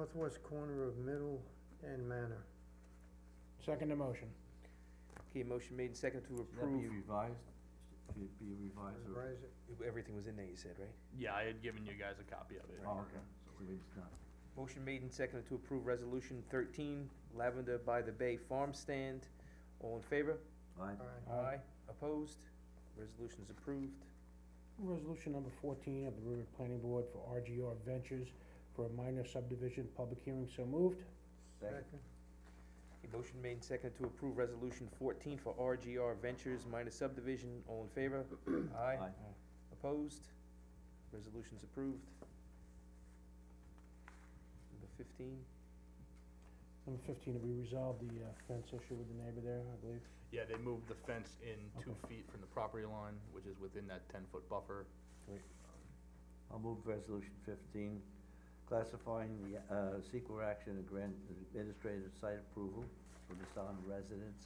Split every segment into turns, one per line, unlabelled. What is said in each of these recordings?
northwest corner of Middle and Manor.
Second the motion.
Okay, motion made and seconded to
Should that be
approve,
revised? Should it be revised or?
Revise it.
everything was in there, you said, right?
Yeah, I had given you guys a copy of it.
Oh, okay, so we just not,
Motion made and seconded to approve resolution thirteen, Lavender by the Bay Farm Stand. All in favor?
alright,
Aye.
Aye.
Opposed? Resolution's approved.
Resolution number fourteen of the Riverhead Planning Board for RGR Ventures for a minor subdivision, public hearing so moved.
second,
Second.
Okay, motion made and seconded to approve resolution fourteen for RGR Ventures minus subdivision. All in favor? Aye.
Uh,
aye,
Opposed? Resolution's approved. Number fifteen,
Number fifteen, have we resolved the uh, fence issue with the neighbor there, I believe?
Yeah, they moved the fence in two
Okay.
feet from the property line, which is within that ten-foot buffer.
I'll move resolution fifteen, classifying the, uh, sequel action and grant administrative site approval for the Sound residents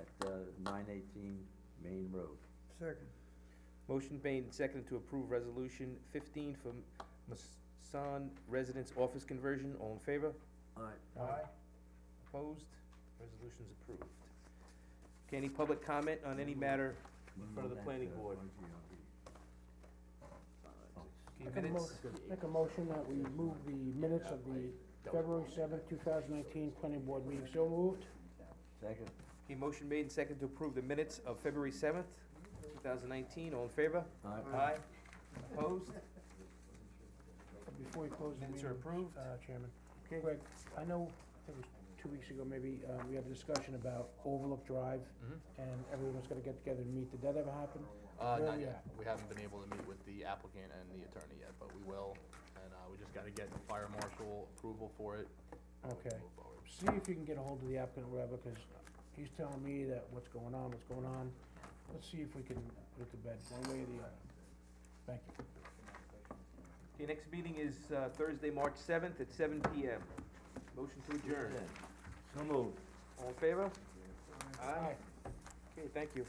at, uh, nine eighteen Main Road.
Second.
motion made and seconded to approve resolution fifteen for Masan Residence Office Conversion. All in favor?
Alright,
Aye.
Opposed? Resolution's approved. Okay, any public comment on any matter? In front of the planning board.
Oh,
Make a
Minutes?
mo- Make a motion that we move the minutes of the February seventh, two thousand nineteen planning board meeting so moved.
Second,
Okay, motion made and seconded to approve the minutes of February seventh, two thousand nineteen. All in favor?
alright,
Aye. Opposed?
Before we close the
Minutes are
meeting,
approved.
uh, Chairman.
Okay.
Greg, I know, I think it was two weeks ago, maybe, uh, we had a discussion about Overlook Drive,
Mhm.
Mm-hmm.
and everyone was gonna get together and meet. Did that ever happen?
Uh,
Where
not
we
yet. We haven't been able to meet with the applicant and the attorney yet, but we will. And, uh, we just gotta get fire marshal approval for it. and we can
Okay.
move forward.
See if you can get a hold of the applicant or whatever, because he's telling me that what's going on, what's going on. Let's see if we can put it to bed one way or the other. Thank you.
Okay, next meeting is uh, Thursday, March seventh at seven PM. Motion to adjourn.
so moved.
All in favor? Aye. Okay, thank you.